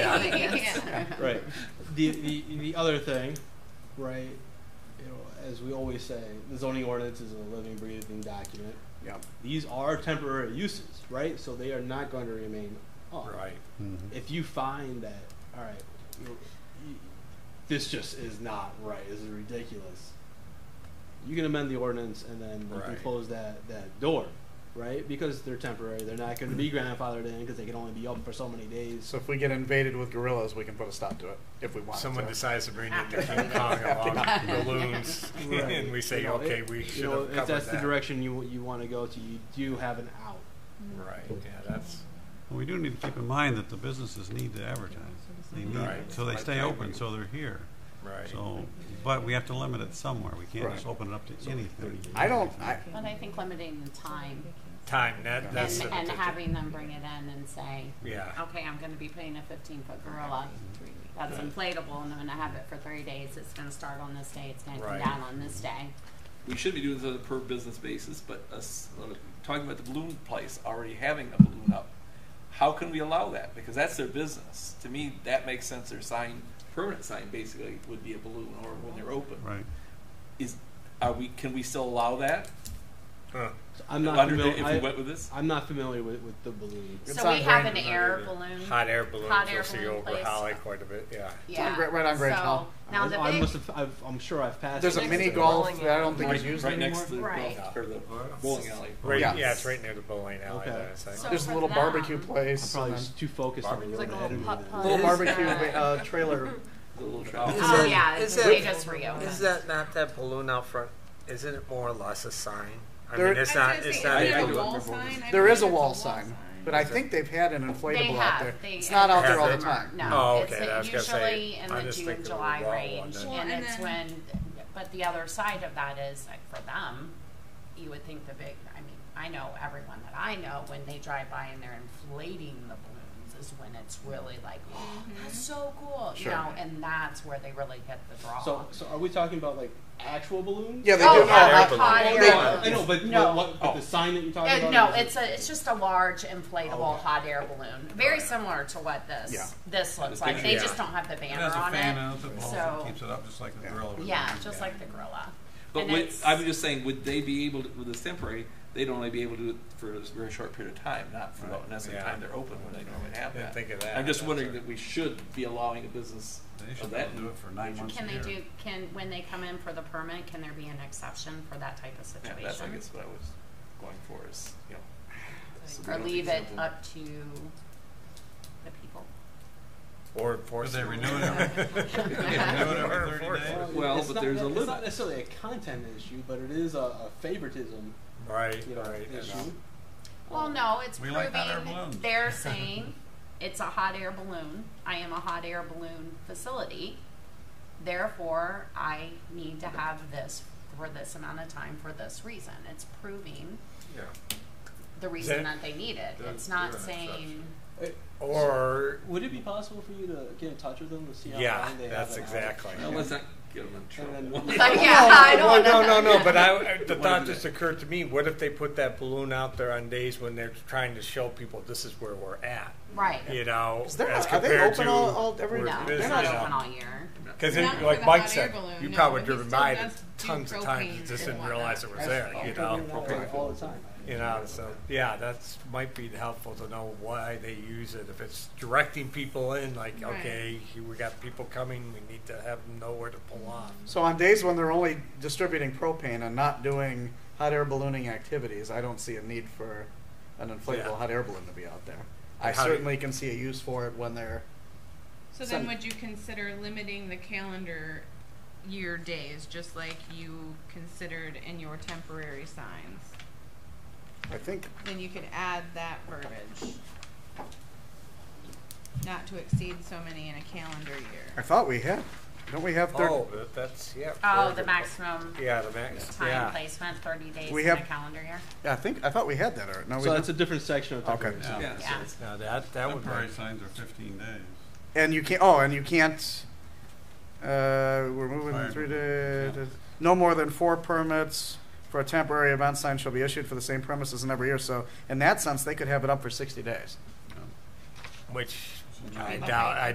I guess. right. The, the the other thing, right? You know, as we always say, the zoning ordinance is a living, breathing document. Yeah, These are temporary uses, right? So they are not going to remain on. right. If you find that, all right, you know, you- this just is not right. This is ridiculous. You can amend the ordinance and then you can Right. close that that door, right? Because they're temporary. They're not going to be grandfathered in because they can only be open for so many days. So if we get invaded with gorillas, we can put a stop to it if we want. Someone to. decides to bring in their King Kong along with balloons, Right. and we say, You know, okay, it- we you should know, have if covered that's the that. direction you you want to go to, you do have an out. Right, yeah, that's, Well, we do need to keep in mind that the businesses need to advertise. They need, Right. so they stay open, so they're here. right. So, but we have to limit it somewhere. We can't just Right. open it up to anything. I don't. I, But I think limiting the time Time, that, that's. and, the- and the- having them bring it in and say, Yeah, okay, I'm gonna be putting a fifteen foot gorilla that's inflatable and I'm gonna have it for three days. It's gonna start on this day, it's gonna come Right. down on this day. We should be doing this on a per business basis, but us uh, talking about the balloon place already having a balloon up, how can we allow that? Because that's their business. To me, that makes sense. Their sign, permanent sign, basically would be a balloon, or when they're open, Right. is are we? Can we still allow that? huh, So I'm not Under the- familiar. if we I, went with this, I'm not familiar with, with the balloon. It's So we on have Grand an Design, air isn't it? balloon. hot air balloons, Hot air you'll see balloon over place. Holly quite a bit, yeah. Yeah. Gra- right on Grand so, Hall. Now the I, I big, must have, I've, I'm sure I've passed. There's a it. mini to the golf bowling that I don't think right, is used right anymore. next to the, Right. golf- or the bowling alley. Right, Yeah. yeah, it's right near the bowling alley, Okay. there, it's like- So- There's a for little them, barbecue I'm place. probably and just too focused on the It's like a road ahead little of me putt then. putt. a little Is barbecue that- uh, trailer. The little trolley. oh yeah, Is they it- just reopened. Is that not that balloon out front? Isn't it more or less a sign? I There- mean, it's not. It's not. I- there I a do wall remember sign? I There believe is a it's wall sign, but I think they've had an They inflatable out have. there. They, It's not out there all the it's summer. time. No, Oh, it's okay, I was gonna say, usually in I the just June think and of the July raw one range, then. Well, and, and it's then- when. But the other side of that is like for them, you would think the big. I mean, I know everyone that I know when they drive by and they're inflating the balloons is when it's really like, oh, Mm-hmm. that's so cool, Sure. you know, and that's where they really get the draw. So, so are we talking about like actual balloons? Yeah, they Oh, do. yeah, like no, hot they- air they- I know, but, No. but what, but the sign that you're Uh, talking no, about? is- it's a it's just a large inflatable hot air balloon, very similar to what this Yeah. this looks This like. picture, They yeah. just don't have the It banner has a on fan it. out the balls So- that keeps it up, just like the Yeah. grill. Yeah, just like the gorilla. But And would, it's- I'm just saying, would they be able to, with this temporary, they'd only be able to do it for a very short period of time, not for the necessary yeah. time they're open when they normally have Didn't that. think of that. I'm just That's wondering a- that we should be allowing a business They of should be that. able to do it for nine months Can a they year. do, can, when they come in for the permit, can there be an exception for that type of Yeah, that's, I situation? guess, what I was going for is, you know. so we Or don't leave it uh, exempt them. up to the people? Or Because enforce. they renew it every, they renew it every thirty days. it- Well, it's but not- there's a It's limit. not necessarily a content issue, but it is a, a favoritism, Right, you know, right. and, issue. uh, Well, no, it's We proving, like hot air balloons. they're saying, it's a hot air balloon, I am a hot air balloon facility. Therefore, I need to have this for this amount of time for this reason. It's proving Yeah. the reason That- that they need it. that's- It's not yeah, that's saying, Or, Would it be possible for you to get in touch with them to see how yeah, long they have that's it out? exactly. Now, let's not get them in And trouble. then- but yeah, I don't Oh, Well, wanna. no, no, no. But I, uh, the Wanna thought do just that. occurred to me: what if they put that balloon out there on days when they're trying to show people this is where we're at? Right. You know, Is there as not- are they compared open to all- all- every- where No, it is, they're not you know. open all year. Because Not for like the Mike hot said, air balloon, you no, probably but he driven still by it does do tons of times. propane You just and didn't realize it was whatnot. there. You know, I've been there all the time. you know. So yeah, that's might be helpful to know why they use it. If it's directing people in, like Right. okay, here we got people coming, we need to have them know where to pull off. So on days when they're only distributing propane and not doing hot air ballooning activities, I don't see a need for an inflatable Yeah. hot air balloon to be out there. I And how do- certainly can see a use for it when they're So then Some- would you consider limiting the calendar year days, just like you considered in your temporary signs? I think Then you could add that verbiage. Not to exceed so many in a calendar I year. thought we had don't we have thirty Oh, that- that's yeah. Oh, the forever. maximum Yeah, the max. time yeah. placement, thirty days We in a have- calendar year. yeah, I think I thought we had that or no we So that's a didn't. different section of Okay. temporary. Yeah. Yeah, so Yeah. it's- Now that that would Temporary be signs are fifteen days. and you can't oh and you can't uh, we're moving Fire through permit, to no more than four permits for a temporary event sign shall be issued for the same premises in every year. So in that sense they could have it up for sixty days. which So I you- doubt I